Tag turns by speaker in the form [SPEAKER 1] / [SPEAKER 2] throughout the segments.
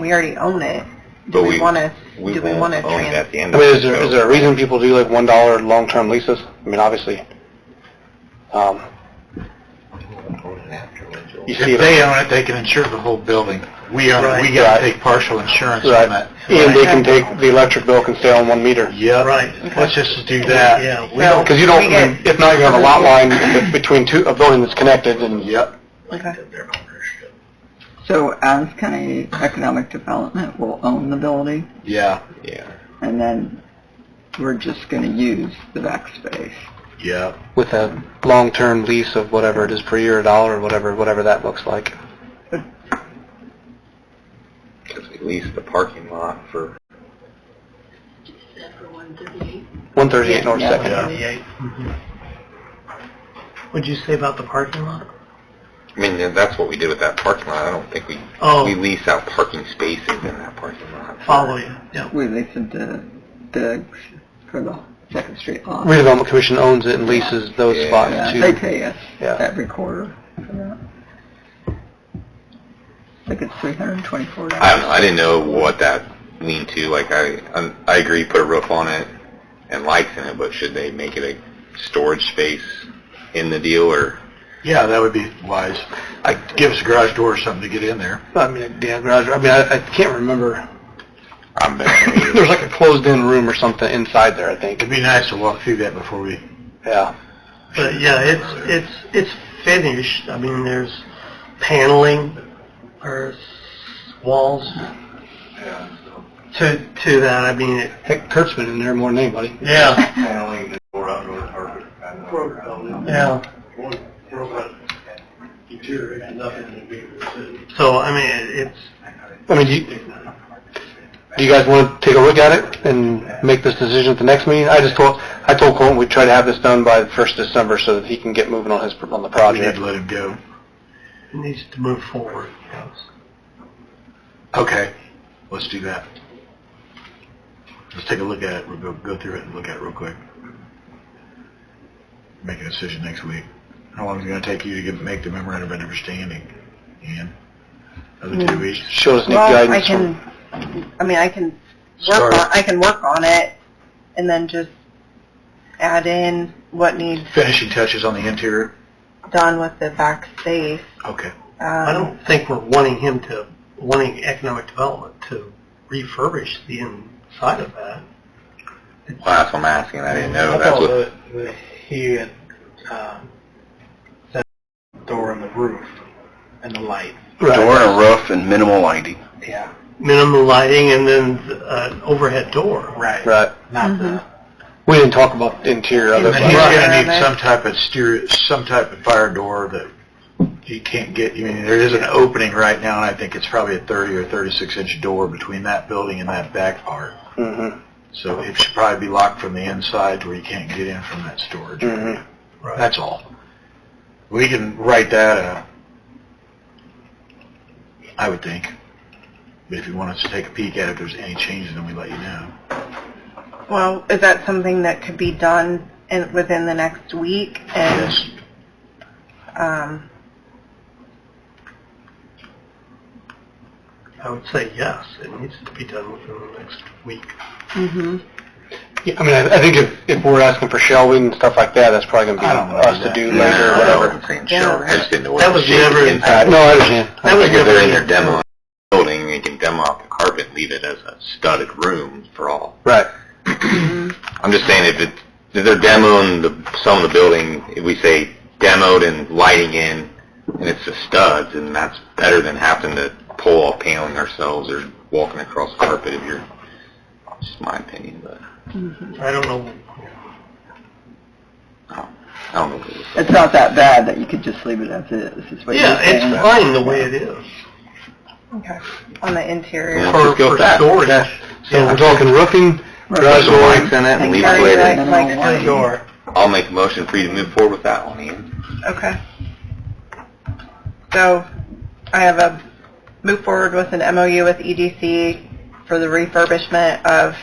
[SPEAKER 1] We already own it. Do
[SPEAKER 2] But
[SPEAKER 1] we
[SPEAKER 2] we-
[SPEAKER 1] want to,
[SPEAKER 2] We
[SPEAKER 1] do we
[SPEAKER 2] won't
[SPEAKER 1] want to
[SPEAKER 2] own it
[SPEAKER 1] trans?
[SPEAKER 2] at the end
[SPEAKER 3] I
[SPEAKER 2] of
[SPEAKER 3] mean,
[SPEAKER 2] it.
[SPEAKER 3] is there,
[SPEAKER 2] so-
[SPEAKER 3] is there a reason people do like one dollar long-term leases? I mean, obviously, um, you see it.
[SPEAKER 4] If they own it, they can insure the whole building. We own it, we
[SPEAKER 3] Right.
[SPEAKER 4] gotta take partial insurance on
[SPEAKER 3] Right.
[SPEAKER 4] that.
[SPEAKER 3] And they can take, the electric bill can stay on one meter.
[SPEAKER 4] Yeah, right. Let's just do that.
[SPEAKER 5] Yeah, we
[SPEAKER 1] So-
[SPEAKER 5] don't,
[SPEAKER 3] Because you don't,
[SPEAKER 1] We get-
[SPEAKER 3] if not, you have a lot line be- between two, a building that's connected and.
[SPEAKER 4] Yep.
[SPEAKER 1] Okay.
[SPEAKER 6] So Adams County Economic Development will own the building,
[SPEAKER 4] Yeah,
[SPEAKER 2] Yeah.
[SPEAKER 6] and then we're just going to use the back space.
[SPEAKER 4] yeah.
[SPEAKER 3] With a long-term lease of whatever it is per year, a dollar or whatever, whatever that looks like.
[SPEAKER 2] Because we leased the parking lot for,
[SPEAKER 3] One thirty-eight North
[SPEAKER 6] Yeah.
[SPEAKER 3] Second.
[SPEAKER 5] yeah. What'd you say about the parking lot?
[SPEAKER 2] I mean, and that's what we did with that parking lot. I don't think we,
[SPEAKER 5] Oh.
[SPEAKER 2] we lease out parking spaces in that parking lot.
[SPEAKER 5] Follow you, yeah.
[SPEAKER 6] We leased it to Diggs for the Second Street lot.
[SPEAKER 3] Redevelopment Commission owns it and leases those
[SPEAKER 2] Yeah.
[SPEAKER 3] spots
[SPEAKER 6] Yeah, they
[SPEAKER 3] to.
[SPEAKER 6] pay us
[SPEAKER 3] Yeah.
[SPEAKER 6] every quarter for that. I think it's $324.
[SPEAKER 2] I don't know. I didn't know what that leaned to. Like, I, I, I agree, put a roof on it and lights in it, but should they make it a storage space in the deal or?
[SPEAKER 4] Yeah, that would be wise. I, give us a garage door or something to get in there.
[SPEAKER 3] I mean, yeah, garage, I mean, I, I can't remember.
[SPEAKER 2] I'm
[SPEAKER 3] There's like a closed-in room or something inside there, I think.
[SPEAKER 4] It'd be nice to walk through that before we,
[SPEAKER 3] Yeah.
[SPEAKER 5] But yeah, it's, it's, it's finished. I mean, there's paneling or s- walls to, to that. I mean, it,
[SPEAKER 3] Heck, Kurt's been in there more than anybody.
[SPEAKER 5] yeah, yeah. So, I mean, it- it's,
[SPEAKER 3] I mean, do you, do you guys want to take a look at it and make this decision at the next meeting? I just told, I told Colton we'd try to have this done by the first December so that he can get moving on his, on the
[SPEAKER 4] we need to
[SPEAKER 3] project.
[SPEAKER 4] let him go.
[SPEAKER 5] it needs to move forward. yes.
[SPEAKER 4] Okay, let's do that. Let's take a look at it, we'll go, go through it and look at it real quick. Make a decision next week. How long is it gonna take you to get, make the memorandum of understanding, Ian? Another two weeks?
[SPEAKER 3] Show us new
[SPEAKER 1] Well, I
[SPEAKER 3] guidance from-
[SPEAKER 1] can, I mean, I can work
[SPEAKER 4] Start.
[SPEAKER 1] on, I can work on it and then just add in what needs
[SPEAKER 4] Finishing touches on the interior?
[SPEAKER 1] done with the back space.
[SPEAKER 4] Okay.
[SPEAKER 5] I
[SPEAKER 1] Um,
[SPEAKER 5] don't think we're wanting him to, wanting economic development to refurbish the inside of that.
[SPEAKER 2] Well, that's what I'm asking. I didn't know.
[SPEAKER 7] I
[SPEAKER 2] That's
[SPEAKER 7] thought
[SPEAKER 2] what,
[SPEAKER 7] that, that he had, um, that door in the roof and the light.
[SPEAKER 3] Right.
[SPEAKER 2] and a roof and minimal lighting.
[SPEAKER 7] Yeah.
[SPEAKER 5] Minimal lighting and then uh, an overhead door.
[SPEAKER 7] Right.
[SPEAKER 3] Right.
[SPEAKER 7] Not the,
[SPEAKER 3] We didn't talk about the interior of
[SPEAKER 4] And
[SPEAKER 3] it.
[SPEAKER 4] then he's
[SPEAKER 3] but-
[SPEAKER 4] gonna need some type of steer, some type of fire door that he can't get, I mean, there is an opening right now, and I think it's probably a thirty or thirty-six inch door between that building and that back part.
[SPEAKER 3] Mhm,
[SPEAKER 1] Mm-hmm,
[SPEAKER 4] So it should probably be locked from the inside to where you can't get in from that storage.
[SPEAKER 7] Mm-hmm.
[SPEAKER 3] mhm.
[SPEAKER 1] mm-hmm.
[SPEAKER 4] That's all. We can write that out. I would think. But if you want us to take a peek at it, if there's any changes, then we let you know.
[SPEAKER 1] well, is that something that could be done in, within the next week? And
[SPEAKER 4] Yes.
[SPEAKER 1] um,
[SPEAKER 5] I would say yes, it needs to be done within the next week.
[SPEAKER 1] hmm
[SPEAKER 3] Yeah, I mean, I I think if, if we're asking for shelving and stuff like that, that's probably
[SPEAKER 4] I
[SPEAKER 3] gonna
[SPEAKER 4] don't
[SPEAKER 3] be
[SPEAKER 4] know
[SPEAKER 3] us to
[SPEAKER 4] that.
[SPEAKER 3] do
[SPEAKER 2] No,
[SPEAKER 3] later,
[SPEAKER 2] I
[SPEAKER 3] whatever.
[SPEAKER 2] wasn't saying
[SPEAKER 1] Yeah.
[SPEAKER 2] shower. I just didn't know what
[SPEAKER 5] That was
[SPEAKER 2] the shape
[SPEAKER 5] never-
[SPEAKER 2] inside
[SPEAKER 3] No, I understand.
[SPEAKER 5] That was
[SPEAKER 2] Like if
[SPEAKER 5] never
[SPEAKER 2] they're in
[SPEAKER 5] in
[SPEAKER 2] their
[SPEAKER 5] the
[SPEAKER 2] demo building, they can demo out the carpet and leave it as a studded room for all.
[SPEAKER 3] Right.
[SPEAKER 2] I'm just saying if it's, if they're demoing the, some of the building, if we say demoed and lighting in, and it's the studs, and that's better than having to pull off paneling ourselves or walking across carpet if you're, it's just my opinion, but
[SPEAKER 5] I don't know,
[SPEAKER 2] I don't know. what it is.
[SPEAKER 6] It's not that bad that you could just leave it as is, is what
[SPEAKER 5] yeah,
[SPEAKER 6] you're saying.
[SPEAKER 5] it's fine the way it is.
[SPEAKER 1] okay, on the interior.
[SPEAKER 2] Yeah.
[SPEAKER 5] For,
[SPEAKER 2] Let's go
[SPEAKER 5] for
[SPEAKER 2] with that.
[SPEAKER 5] storage.
[SPEAKER 3] That's- So
[SPEAKER 5] Yeah.
[SPEAKER 3] we're talking roofing,
[SPEAKER 2] Put
[SPEAKER 3] garage
[SPEAKER 2] some
[SPEAKER 3] door,
[SPEAKER 2] lights in it and
[SPEAKER 1] Like,
[SPEAKER 2] leave
[SPEAKER 1] are
[SPEAKER 2] it
[SPEAKER 1] you
[SPEAKER 2] later.
[SPEAKER 1] like- like-
[SPEAKER 6] Minimal lighting.
[SPEAKER 5] Door.
[SPEAKER 2] I'll make a motion for you to move forward with that one, Ian.
[SPEAKER 1] Okay. So I have a move forward with an MOU with EDC for the refurbishment of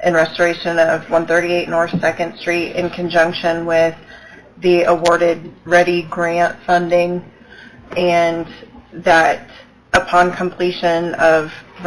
[SPEAKER 1] and restoration of 138 North 2nd Street in conjunction with the awarded Ready grant funding and that upon completion of